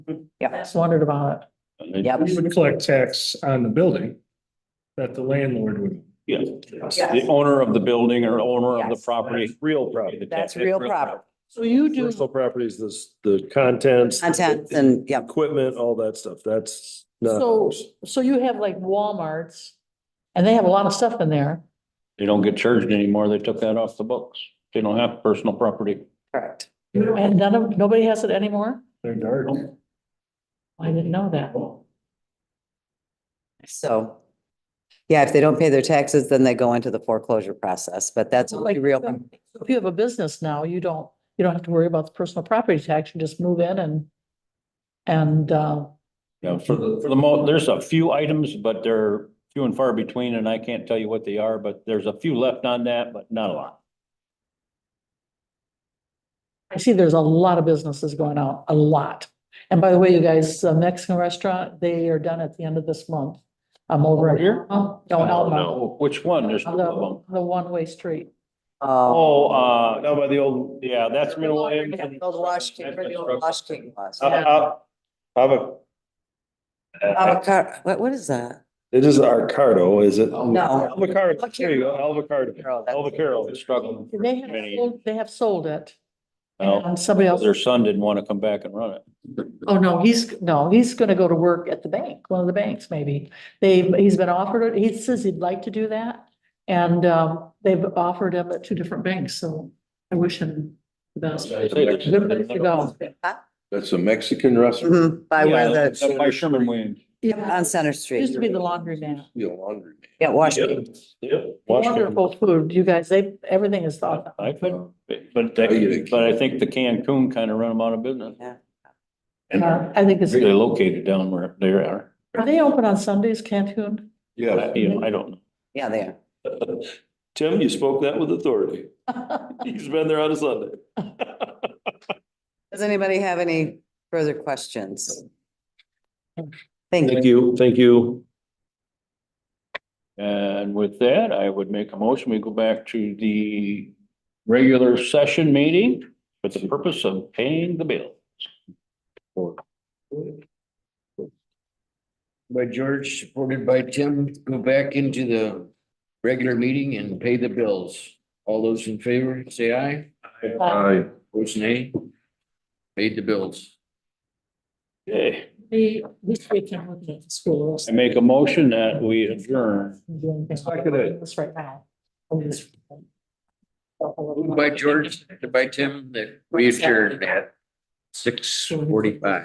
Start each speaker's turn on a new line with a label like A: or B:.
A: Yeah, just wondered about
B: Yep.
C: We would collect tax on the building that the landlord would.
B: Yeah.
C: Yes.
B: The owner of the building or owner of the
A: Yes.
B: property.
D: Real property.
B: The
A: That's
B: tax-
A: real property.
E: So you do,
D: Personal property is this, the contents.
F: Contents and, yeah,
D: Equipment, all that stuff. That's not.
E: so, so you have like Walmarts and they have a lot of stuff in there.
B: They don't get charged anymore. They took that off the books. They don't have personal property.
F: correct.
E: And none of, nobody has it anymore?
C: They're dark.
E: I didn't know that.
F: So, yeah, if they don't pay their taxes, then they go into the foreclosure process, but that's a
E: Oh, Like,
F: real, um,
E: If you have a business now, you don't, you don't have to worry about the personal property tax. You just move in and, and, uh,
B: You know, for the, for the most, there's a few items, but they're few and far between and I can't tell you what they are, but there's a few left on that, but not a lot.
E: I see there's a lot of businesses going out, a lot. And by the way, you guys, uh, Mexican restaurant, they are done at the end of this month. I'm over
B: Over
E: at-
B: here?
E: Oh, No, Alma,
B: Oh, Which one? There's two of
E: the,
B: them.
E: the one-way street.
F: oh,
B: Oh, uh, no, by the old, yeah, that's Middle Williamson.
F: the old Wash King, where the old Wash King was.
D: Uh, uh, uh,
F: Avocado, what, what is that?
D: It is Arcardo, is it?
F: No.
D: Alvacardo, there you go, Alvacardo.
F: Carol, that's-
D: Alvacardo is
B: Struggling. for
E: They have,
B: many- Oh.
E: sold- they have sold it.
B: Well,
E: And somebody else,
B: Their son didn't want to come back and run it.
E: oh no, he's, no, he's gonna go to work at the bank, one of the banks maybe. They, he's been offered, it. he says he'd like to do that. And, um, they've offered him at two different banks, so I wish him the best. Good place to go.
G: That's a Mexican restaurant,
F: Mhm, By where
B: Yeah, that's
F: the,
B: By Sherman Williams.
F: yeah, on Center
E: Used to
F: Street.
E: be the laundry man.
G: be a laundry.
F: Yeah, Wash
B: Yeah.
F: King.
E: Wonderful food, you guys, they, everything is thought.
B: I
E: But
B: could, but that, but I think the Cancun kind of run them out of business.
G: And
E: uh, I think it's,
B: They located down where they are.
E: are they open on Sundays, Cancun?
G: Yeah,
B: You know, I don't know.
F: Yeah, they are.
D: Tim, you spoke that with authority. He's been there on a Sunday.
F: Does anybody have any further questions? Thank you.
D: Thank you, thank you.
B: And with that, I would make a motion, we go back to the regular session meeting with the purpose of paying the bill.
H: by George, supported by Tim, go back into the regular meeting and pay the bills. All those in favor, say aye.
E: uh,
G: I,
H: Votes nay. Paid the bills.
B: Okay,
E: The, this weekend, we're looking at the school.
B: I make a motion that we adjourn.
D: Seconded.
E: This right now. I'm just-
H: Moved by George, seconded by Tim, that we adjourned at six forty-five.